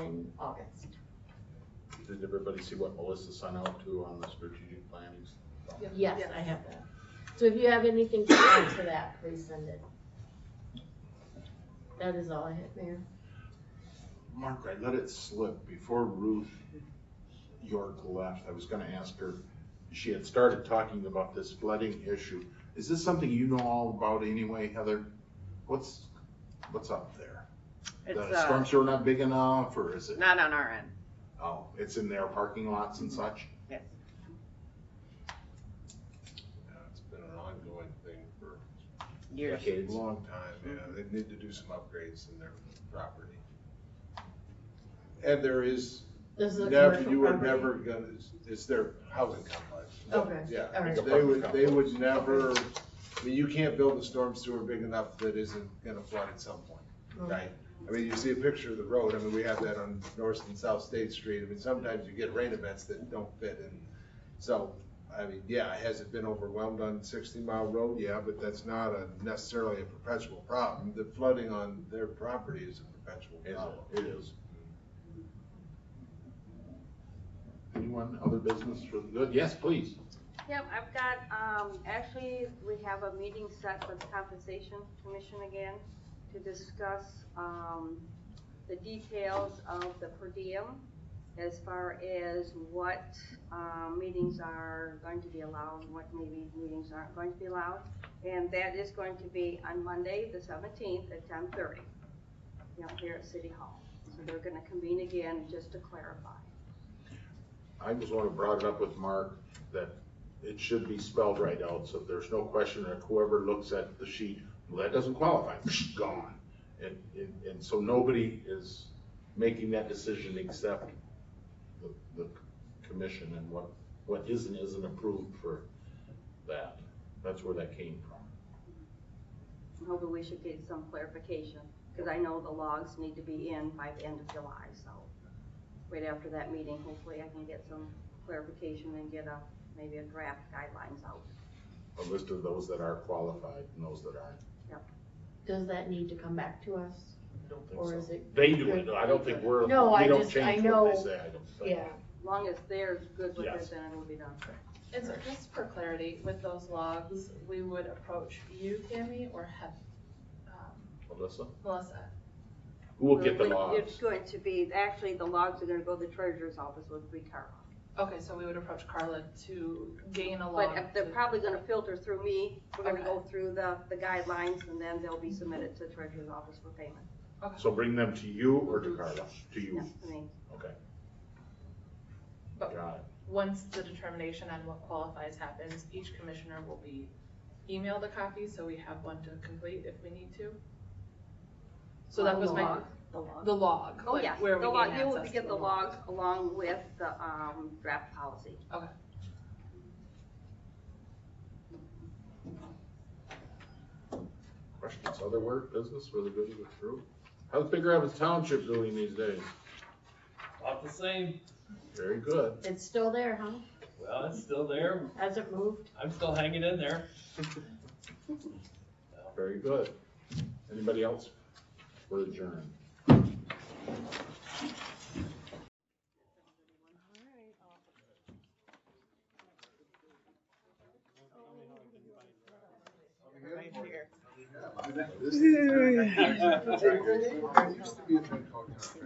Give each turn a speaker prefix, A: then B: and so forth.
A: in August.
B: Did everybody see what Melissa sent out to on the strategic planning?
A: Yes, I have that. So if you have anything to add to that, please send it. That is all I have, Mayor.
B: Mark, I let it slip before Ruth York left. I was gonna ask her, she had started talking about this flooding issue. Is this something you know all about anyway, Heather? What's, what's up there?
C: It's
B: The
C: uh,
B: storms are not big enough, or is it,
C: not on our end.
B: oh, it's in their parking lots and such?
C: Yes.
D: Yeah, Uh, It's been an ongoing thing for
C: Years.
D: a long time, yeah, they need to do some upgrades in their property. And there is,
A: This is a
D: never,
A: commercial
D: you were
A: property.
D: never gonna, it's their housing complex.
A: Okay, all
D: Yeah,
A: right.
D: they would, they would never, I mean, you can't build a storm sewer big enough that isn't gonna flood at some point. Right. I mean, you see a picture of the road, I mean, we have that on North and South State Street, I mean, sometimes you get rain events that don't fit in. So, I mean, yeah, has it been overwhelmed on sixty mile road? Yeah, but that's not a necessarily a perpetual problem. The flooding on their property is a perpetual
B: Is
D: problem.
B: It it is. Anyone, other business for the good? Yes, please.
E: Yep, I've got, um, actually, we have a meeting set with compensation commission again to discuss, um, the details of the per diem as far as what, um, meetings are going to be allowed, what maybe meetings aren't going to be allowed. And that is going to be on Monday, the seventeenth, at ten thirty, you know, here at City Hall. So they're gonna convene again just to clarify.
B: I just want to brought it up with Mark that it should be spelled right out, so if there's no question that whoever looks at the sheet, well, that doesn't qualify, gone. And, and, and so nobody is making that decision except the, the commission and what, what is and isn't approved for that. That's where that came from.
E: Hopefully we should get some clarification, because I know the logs need to be in by the end of July, so right after that meeting, hopefully I can get some clarification and get a, maybe a draft guidelines out.
B: A list of those that are qualified and those that aren't.
A: Does that need to come back to us?
B: I don't think
A: Or
B: so.
A: is it-
B: They do it, I don't think we're, we
A: No, I
B: don't
A: just- I
B: change what
A: know-
B: they say, I don't think.
A: Yeah,
E: As long as they're good with
B: Yes.
E: it, then it'll be done.
F: It's just for clarity, with those logs, we would approach you, Tammy, or have, um,
B: Melissa,
F: Melissa.
B: who will get the
E: We-
B: logs?
E: It's going to be, actually, the logs are gonna go to the treasurer's office with Ricardo.
F: Okay, so we would approach Carla to gain a log.
E: But if they're
F: to-
E: probably gonna filter through me, we're gonna
F: Okay.
E: go through the, the guidelines, and then they'll be submitted to the treasurer's office for payment.
B: So bring them to you or to Carla? To you.
E: I mean,
B: Okay.
F: But-
B: Got it.
F: Once the determination on what qualifies happens, each commissioner will be emailed a copy, so we have one to complete if we need to. So that
E: on
F: was
E: the
F: my,
E: log, The log.
F: the log,
E: Oh,
F: like
E: yes, the
F: where we
E: log,
F: gain
E: you will
F: access to
E: get the
F: log.
E: logs along with the, um, draft policy.
B: Questions, other work, business, really good to go through? How's Big Rapids Township doing these days?
G: About the same.
B: Very good.
A: it's still there, huh?
G: Well, it's still there.
A: Hasn't moved?
G: I'm still hanging in there.
B: Very good. Anybody else? We're adjourned.
D: This is- Hey, there used to be a thing called-